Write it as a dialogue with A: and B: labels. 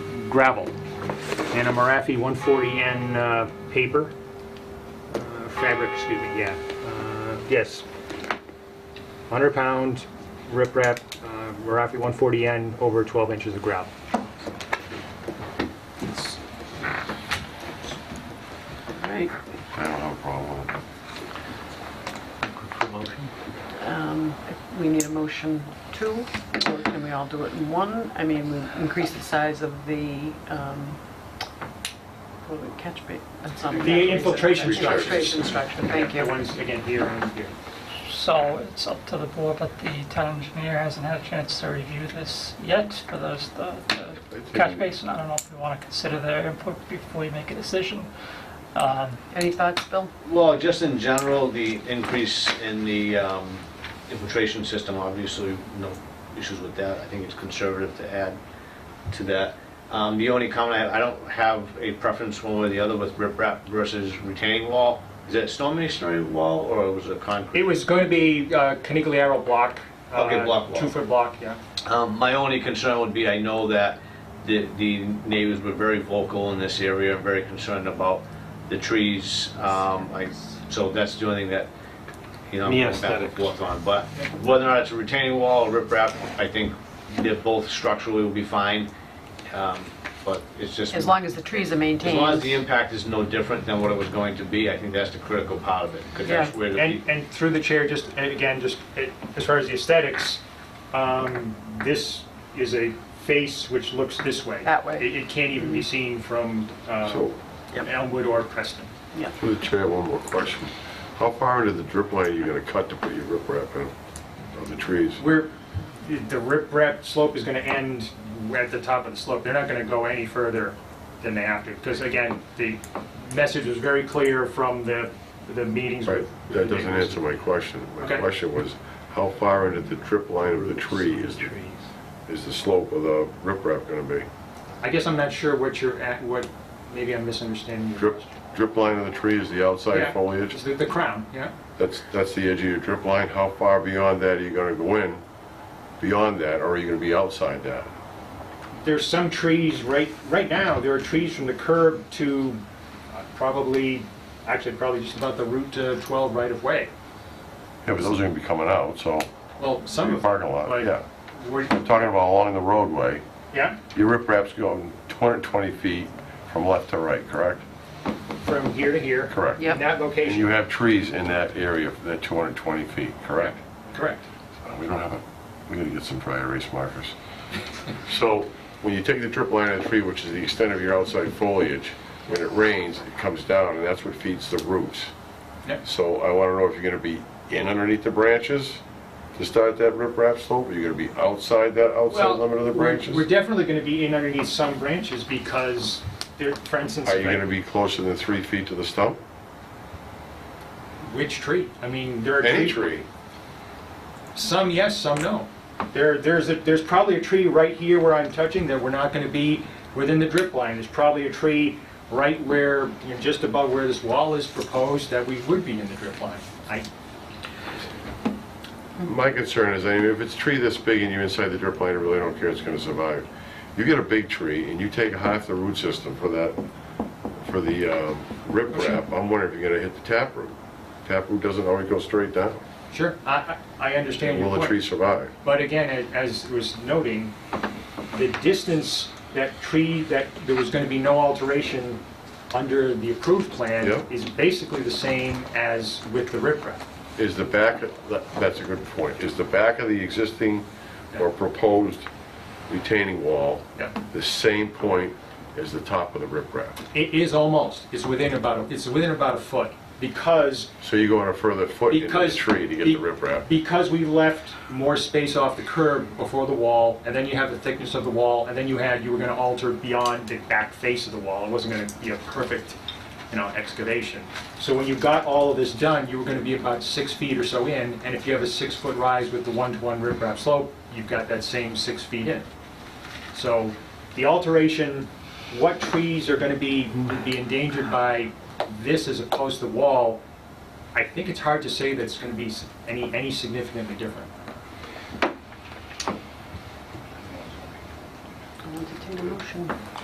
A: gravel, and a Marafi 140N uh, paper, uh, fabric, excuse me, yeah. Uh, Yes. 100 pound riprap, uh, Marafi 140N, over 12 inches of gravel.
B: Right.
C: I don't have a problem with it.
B: Um, We need a motion two, or can we all do it in one? I mean, we increase the size of the, um, what do we- catch ba, that's not. a
A: The
B: catch basin.
A: infiltration structure.
B: Infiltration structure, thank
A: The
B: you.
A: ones, again, here and here.
D: So it's up to the board, but the town engineer hasn't had a chance to review this yet for those, the the catch basin. I don't know if we want to consider their input before we make a decision. Um,
B: Any thoughts, Bill?
E: Well, just in general, the increase in the um, infiltration system, obviously, no issues with that. I think it's conservative to add to that. Um, The only comment I have, I don't have a preference one way or the other with riprap versus retaining wall. Is it storm-masonry wall or was it
A: It
E: concrete?
A: was going to be uh, Canigliaro block. uh,
E: Okay, block wall.
A: Two-foot block, yeah.
E: Um, My only concern would be, I know that the the neighbors were very vocal in this area, very concerned about the trees. Um, I- So that's the only thing that, you know, I'm
A: The
E: going back and
A: aesthetics.
E: forth on. But whether or not it's a retaining wall or riprap, I think they're both structurally will be fine. Um, But it's just,
B: As
E: as long
B: long as the trees are
E: as the
B: maintained.
E: impact is no different than what it was going to be, I think that's the critical part of it. Because that's
B: Yeah.
E: where the
A: And, and through the chair, just, and again, just uh, as far as the aesthetics, um, this is a face which looks this way.
B: That way. Mm-hmm.
A: It, it can't even be seen from uh,
C: So,
A: Elmwood or Preston.
C: through the chair, one more question. How far into the drip line are you gonna cut to put your riprap in, of the trees?
A: We're, the the riprap slope is gonna end at the top of the slope. They're not gonna go any further than they have to, because again, the message was very clear from the, the meetings.
C: Right,
A: with
C: that
A: the
C: doesn't
A: neighbors.
C: answer my question. My
A: Okay.
C: question was, how far into the drip line of the tree is, is the slope of the riprap gonna be?
A: I guess I'm not sure what you're at, what, maybe I'm misunderstanding your
C: Drip,
A: question.
C: drip line of the tree is the
A: Yeah.
C: outside foliage?
A: It's The the crown, yeah.
C: That's, that's the edge of your drip line. How far beyond that are you gonna go in? Beyond that, or are you gonna be outside that?
A: There's some trees right, right now, there are trees from the curb to uh, probably, actually probably just about the Route uh, 12 right of way.
C: Yeah, but those are gonna be coming out, so,
A: Well, some
C: your
A: of them.
C: parking lot,
A: like,
C: yeah.
A: were-
C: I'm talking about along the roadway.
A: Yeah,
C: Your riprap's going 220 feet from left to right, correct?
A: from here to here.
C: Correct.
A: In
B: Yep,
A: that
C: And you
A: location,
C: have trees in that area for that 220 feet, correct?
A: correct.
C: Uh, We don't have a, we gotta get some dry erase markers. So when you take the drip line of the tree, which is the extent of your outside foliage, when it rains, it comes down and that's what feeds the roots.
A: Yep.
C: So I wanna know if you're gonna be in underneath the branches to start that riprap slope? Are you gonna be outside that outside
A: Well,
C: limit of the
A: we're-
C: branches?
A: We're definitely going to be in underneath some branches because there, for instance,
C: Are you gonna be closer than three feet to the stump?
A: which tree? I mean, there are
C: Any
A: trees-
C: tree?
A: Some yes, some no. There, there's, a- there's probably a tree right here where I'm touching that we're not going to be within the drip line. There's probably a tree right where, you know, just above where this wall is proposed that we would be in the drip line. I,
C: My concern is, I mean, if it's a tree this big and you're inside the drip line, I really don't care, it's gonna survive. You get a big tree and you take half the root system for that, for the um, riprap, I'm wondering if you're gonna hit the taproot. Taproot doesn't always go straight down.
A: sure, I, I I understand your
C: Will
A: point.
C: the tree survive?
A: But again, a- as was noting, the distance that tree, that there was going to be no alteration under the approved plan
C: Yeah.
A: is basically the same as with the riprap.
C: Is the back, that- that's a good point, is the back of the existing or proposed retaining wall
A: Yeah.
C: the same point as the top of the riprap?
A: It is almost, it's within about, a- it's within about a foot because
C: So you're going a further foot into the
A: Because
C: tree to get
A: be-
C: the riprap?
A: Because we left more space off the curb before the wall, and then you have the thickness of the wall, and then you had, you were gonna alter beyond the back face of the wall. It wasn't gonna be a perfect, you know, excavation. So when you got all of this done, you were gonna be about six feet or so in, and if you have a six-foot rise with the one-to-one riprap slope, you've got that same six feet in. So the alteration, what trees are gonna be, be endangered by this as opposed to wall, I think it's hard to say that it's going to be s- any, any significantly different.
B: I'll entertain a motion.